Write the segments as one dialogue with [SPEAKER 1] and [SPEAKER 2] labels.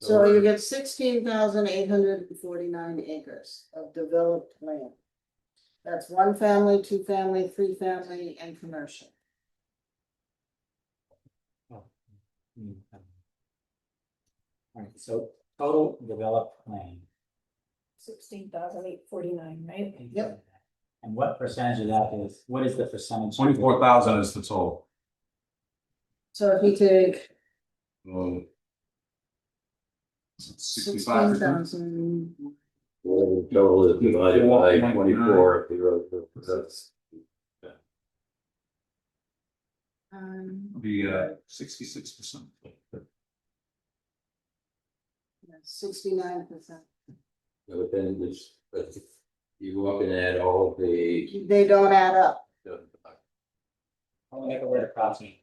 [SPEAKER 1] So you get sixteen thousand eight hundred and forty-nine acres of developed land. That's one family, two family, three family, and commercial.
[SPEAKER 2] Alright, so total developed land.
[SPEAKER 3] Sixteen thousand eight forty-nine, right?
[SPEAKER 1] Yep.
[SPEAKER 2] And what percentage of that is, what is the percentage?
[SPEAKER 4] Twenty-four thousand is the total.
[SPEAKER 1] So if you take
[SPEAKER 4] Um, Sixty-five
[SPEAKER 1] sixteen
[SPEAKER 4] percent.
[SPEAKER 1] thousand,
[SPEAKER 5] Well, the total is divided by
[SPEAKER 4] 51.9.
[SPEAKER 5] twenty-four, if you wrote the, that's,
[SPEAKER 1] um,
[SPEAKER 4] Be uh sixty-six percent.
[SPEAKER 1] sixty-nine percent.
[SPEAKER 5] but then there's, but you go up and add all of the.
[SPEAKER 1] They don't add up.
[SPEAKER 5] So
[SPEAKER 2] I'll make a word approximate.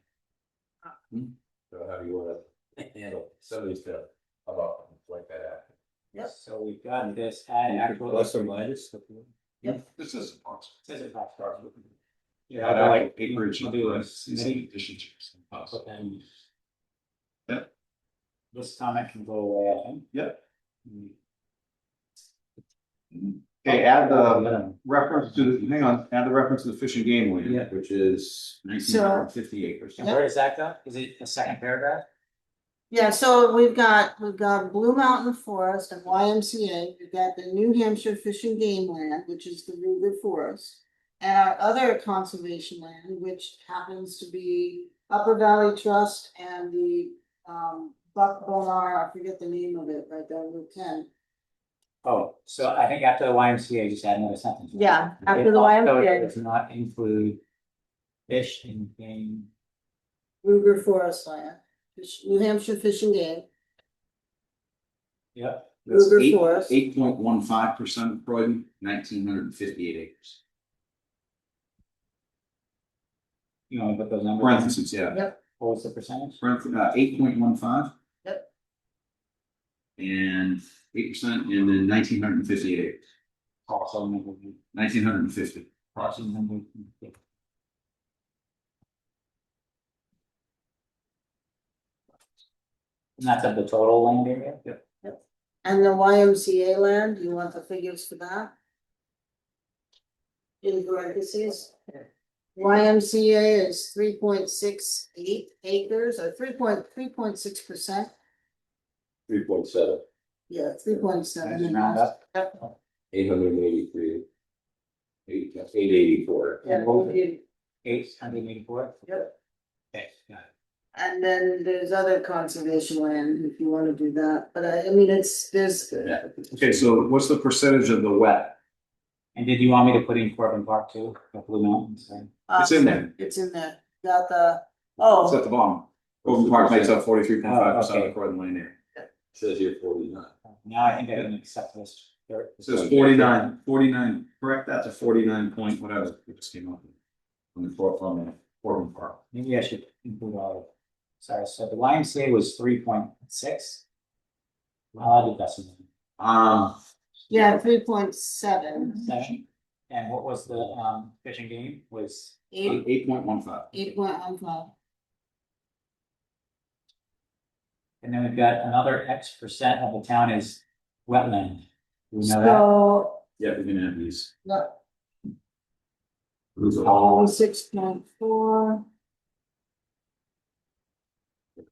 [SPEAKER 5] how do you wanna handle some of these stuff, how about like that?
[SPEAKER 1] Yep.
[SPEAKER 2] So we've got this add actual.
[SPEAKER 5] minus.
[SPEAKER 4] This is possible.
[SPEAKER 2] Says it approximately. Yeah,
[SPEAKER 4] Add
[SPEAKER 2] I
[SPEAKER 4] like
[SPEAKER 2] like.
[SPEAKER 4] acreage.
[SPEAKER 2] I'll do
[SPEAKER 4] and
[SPEAKER 2] this, maybe
[SPEAKER 4] Addition to it's
[SPEAKER 2] put
[SPEAKER 4] impossible.
[SPEAKER 2] them-
[SPEAKER 4] Yeah.
[SPEAKER 2] This comment can go away, I think.
[SPEAKER 4] Yeah.
[SPEAKER 2] Mm.
[SPEAKER 4] Okay, add the reference to, the hang on, add the reference to the fish and game
[SPEAKER 2] Yeah.
[SPEAKER 4] land, which is nineteen hundred and fifty acres.
[SPEAKER 2] And where is that go? Is it the second paragraph?
[SPEAKER 1] Yeah, so we've got, we've got Blue Mountain Forest and YMCA, we've got the New Hampshire Fish and Game Land, which is the Ruger Forest. And our other conservation land, which happens to be Upper Valley Trust and the um Buck Bonar, I forget the name of it, right down Route ten.
[SPEAKER 2] Oh, so I think after the YMCA, just add another sentence.
[SPEAKER 1] Yeah, after
[SPEAKER 2] It
[SPEAKER 1] the
[SPEAKER 2] also
[SPEAKER 1] YMCA,
[SPEAKER 2] Does not include fish and game.
[SPEAKER 1] Ruger Forest Land, Fish- New Hampshire Fish and Game,
[SPEAKER 2] Yep.
[SPEAKER 4] That's
[SPEAKER 1] Ruger
[SPEAKER 4] eight-
[SPEAKER 1] Forest.
[SPEAKER 4] Eight point one five percent of Croydon, nineteen hundred and fifty-eight acres.
[SPEAKER 2] You want to put those numbers? in?
[SPEAKER 4] Parentheses, yeah.
[SPEAKER 2] What was the percentage?
[SPEAKER 4] Parentheses, uh, eight point one five.
[SPEAKER 1] Yep.
[SPEAKER 4] And eight percent and then nineteen hundred and fifty-eight acres,
[SPEAKER 2] Also, maybe
[SPEAKER 4] nineteen hundred and fifty.
[SPEAKER 2] approximately. number- And that's of the total land area? Yep.
[SPEAKER 1] And the YMCA land, you want the figures for that? In parentheses. YMCA is three point six eight acres or three point, three point six percent,
[SPEAKER 5] Three point seven,
[SPEAKER 1] yeah, three point
[SPEAKER 2] Just
[SPEAKER 1] seven.
[SPEAKER 2] round up.
[SPEAKER 5] eight hundred and eighty-three. Eight, eight eighty-four,
[SPEAKER 1] Yeah,
[SPEAKER 2] Eight hundred eighty-four?
[SPEAKER 1] Yep.
[SPEAKER 2] Okay, got it.
[SPEAKER 1] and then there's other conservation land if you wanna do that, but I, I mean, it's, there's,
[SPEAKER 4] Okay, so what's the percentage of the wet?
[SPEAKER 2] And did you want me to put in Corbin Park too, the Blue Mountains? right?
[SPEAKER 1] uh,
[SPEAKER 4] It's in there,
[SPEAKER 1] it's in there, got the,
[SPEAKER 4] it's
[SPEAKER 1] oh,
[SPEAKER 4] at the bottom. Overland Park makes up forty-three point five percent
[SPEAKER 2] Oh,
[SPEAKER 4] of
[SPEAKER 2] okay.
[SPEAKER 4] the Croydon land area.
[SPEAKER 5] says here forty-nine.
[SPEAKER 2] Now I think I can accept this.
[SPEAKER 4] It says forty-nine, forty-nine, correct that to forty-nine point whatever, it just came up. On the fourth, on the Overland Park.
[SPEAKER 2] Maybe I should include all of it. Sorry, so the YMCA was three point six. I'll add the decimal.
[SPEAKER 4] Um,
[SPEAKER 1] yeah, three point seven,
[SPEAKER 2] Seven. And what was the um fishing game was,
[SPEAKER 1] eight,
[SPEAKER 4] eight point one five.
[SPEAKER 1] eight point one five.
[SPEAKER 2] and then we've got another X percent of the town is wetland. Do we know that?
[SPEAKER 1] So,
[SPEAKER 4] Yeah, we're gonna have these.
[SPEAKER 1] no,
[SPEAKER 4] Those are
[SPEAKER 1] Oh, six point four,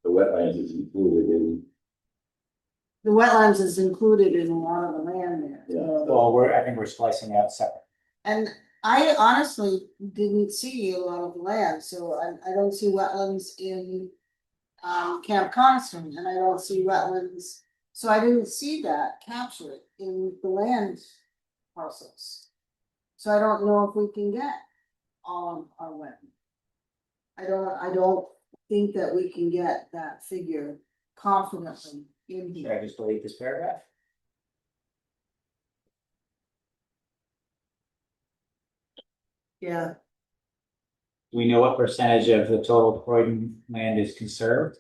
[SPEAKER 5] The wetlands is included in,
[SPEAKER 1] the wetlands is included in a lot of the land there. so-
[SPEAKER 2] Well, we're, I think we're splicing out separate.
[SPEAKER 1] And I honestly didn't see a lot of land, so I, I don't see wetlands in um, Camp Coniston, and I don't see wetlands, so I didn't see that captured in the land parcels. So I don't know if we can get all of our wetland. I don't, I don't think that we can get that figure confidently in
[SPEAKER 2] Should
[SPEAKER 1] here.
[SPEAKER 2] I just delete this paragraph?
[SPEAKER 1] Yeah,
[SPEAKER 2] Do we know what percentage of the total Croydon land is conserved?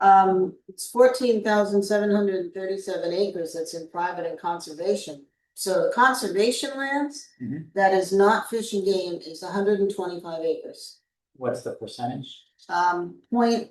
[SPEAKER 1] um, it's fourteen thousand seven hundred and thirty-seven acres that's in private and conservation. So the conservation lands,
[SPEAKER 2] Mhm.
[SPEAKER 1] that is not fish and game, is hundred and twenty-five acres.
[SPEAKER 2] What's the percentage?
[SPEAKER 1] Um, point